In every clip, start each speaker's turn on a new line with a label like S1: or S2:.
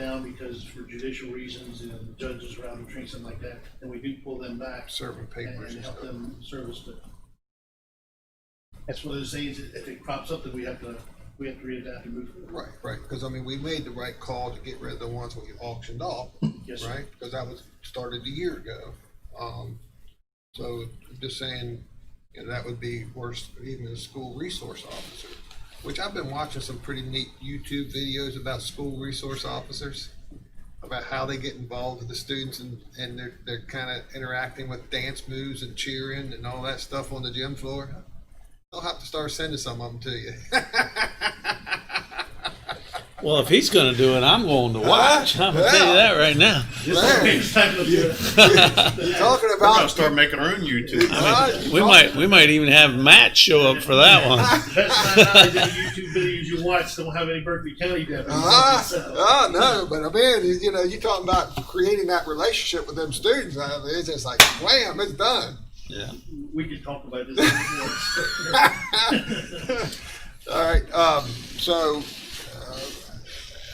S1: down because for judicial reasons, you know, the judges are out of training, something like that, and we do pull them back
S2: serving
S1: and
S2: papers
S1: and
S2: and
S1: help
S2: stuff.
S1: them service it. That's one of those things, if it crops up, then we have to, we have to readapt and move forward.
S2: Right, right, because I mean, we made the right call to get rid of the ones we auctioned off,
S1: Yes, sir.
S2: right? Because that was started a year ago. Um, so just saying, you know, that would be worse, even a school resource officer, which I've been watching some pretty neat YouTube videos about school resource officers, about how they get involved with the students and, and they're, they're kind of interacting with dance moves and cheering and all that stuff on the gym floor. I'll have to start sending some of them to you.
S3: Well, if he's going to do it, I'm going to watch. I'm going to tell you that right now.
S1: Next time, let's do that.
S2: Talking
S4: We're gonna
S2: about.
S4: start making our own YouTube.
S3: We might we might even have Matt show up for that one.
S1: That's not how the YouTube videos you watch don't have any Berkeley County deputies.
S2: Ah,
S1: So,
S2: ah, no, but I mean, you- you know, you're talking about creating that relationship with them students. uh, It's just like, wham, it's done.
S3: Yeah.
S1: We could talk about this. before.
S2: All right, um, so, uh,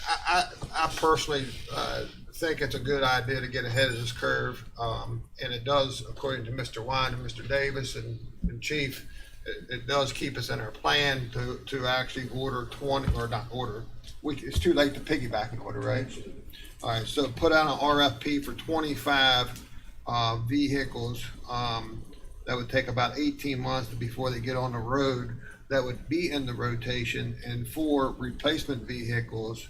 S2: I, I, I personally, uh, think it's a good idea to get ahead of this curve. Um, and it does, according to Mr. Wine and Mr. Davis and, and Chief, it, it does keep us in our plan to, to actually order twenty, or not order. We, it's too late to piggyback and order, right? All right, so put out an RFP for twenty-five, uh, vehicles. Um, that would take about eighteen months before they get on the road. That would be in the rotation and four replacement vehicles.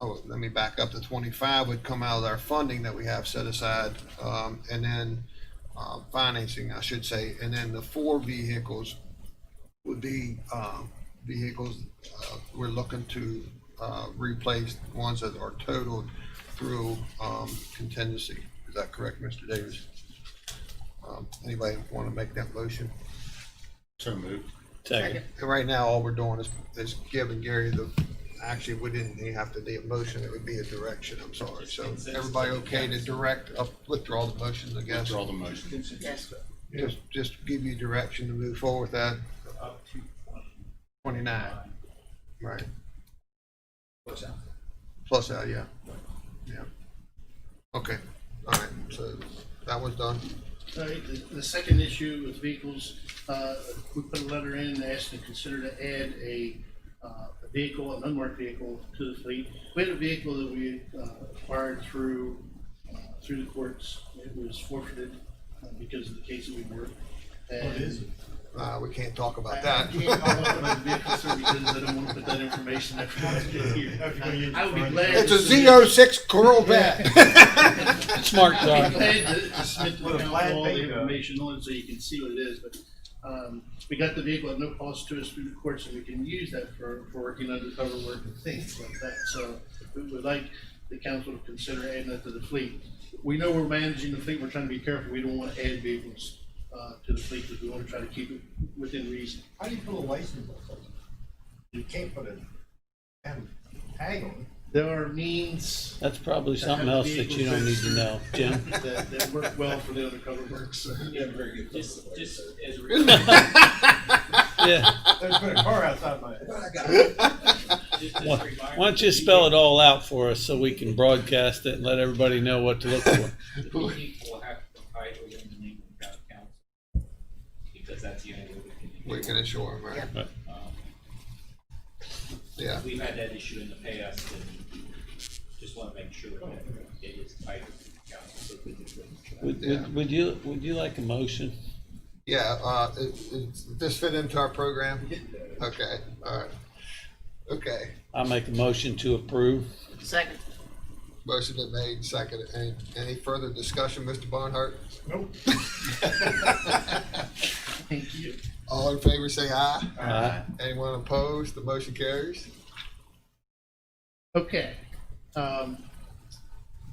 S2: Oh, let me back up. The twenty-five would come out of our funding that we have set aside, um, and then, uh, financing, I should say. And then the four vehicles would be, um, vehicles, uh, we're looking to, uh, replace ones that are totaled through, um, contingency. Is that correct, Mr. Davis? Um, anybody want to make that motion?
S4: So moved.
S3: Take it.
S2: And right now, all we're doing is, is giving Gary the, actually, we didn't even have to be a motion, it would be a direction, I'm sorry. So everybody okay to direct, uh, withdraw the motion, I guess?
S4: Withdraw the motion.
S5: Yes,
S2: Just, just give you direction to move forward with that
S1: Up to
S2: twenty-nine, right?
S1: what's out there.
S2: Plus that, yeah. Yeah. Okay, all right, so that was done.
S1: All right, the, the second issue with vehicles, uh, we put a letter in and asked to consider to add a, uh, a vehicle, an unmarked vehicle to the fleet. We had a vehicle that we uh, acquired through, uh, through the courts. It was forfeited uh, because of the case that we were. What is it?
S2: Uh, we can't talk
S1: I
S2: about
S1: I
S2: that.
S1: can't talk about the vehicle, sir, because I don't want to put that information out here. I would be glad.
S2: It's
S1: to
S2: a
S1: submit-
S2: Z06 Corvette.
S3: Smart
S1: I'd be
S3: car.
S1: glad to to submit to
S6: With a
S1: council
S6: flat
S1: all the
S6: bingo.
S1: information on it so you can see what it is, but, um, we got the vehicle at no cost to us through the courts, and we can use that for, for working undercover work and things like that, so we would like the council to consider adding that to the fleet. We know we're managing the fleet, we're trying to be careful, we don't want to add vehicles, uh, to the fleet, because we want to try to keep it within reason.
S6: How do you put a license on something? You can't put a damn tag on it.
S1: There are means
S3: That's probably something else that you don't need to know, Jim.
S1: that, that work well for the undercover work, so.
S5: just, just as. a-
S3: Yeah.
S6: They put a car outside my.
S5: just as a
S3: Why
S5: reminder,
S3: why don't you spell it all out for us so we can broadcast it and let everybody know what to look for?
S5: The people will have to comply with the Lincoln County Council, because that's the only way
S2: We
S5: we
S2: can
S5: can.
S2: assure him, right?
S5: Um,
S2: Yeah.
S5: We've had that issue in the past, and just want to make sure that it is tied to the council. so that it's-
S3: Would, would, would you would you like a motion?
S2: Yeah, uh, it, it, this fit into our program? Okay, all right. Okay,
S3: I make a motion to approve.
S7: Second.
S2: motion been made, seconded. Any, any further discussion, Mr. Barnhart?
S6: Nope.
S1: Thank you.
S2: All in favor, say aye.
S3: Aye.
S2: Anyone opposed? The motion carries.
S1: Okay. Um,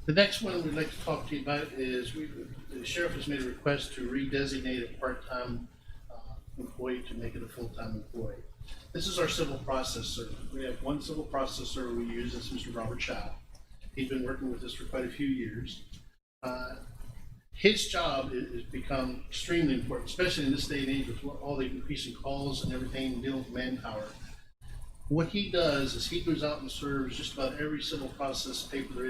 S1: The next one we'd like to talk to you about is, we, the sheriff has made a request to redesignate a part-time uh, employee to make it a full-time employee. This is our civil process server. We have one civil process server we use, that's Mr. Robert Chow. He's been working with us for quite a few years. Uh, His job i- has become extremely important, especially in this day and age with all the increasing calls and everything, dealing with manpower What he does is he goes out and serves just about every civil process paper there is.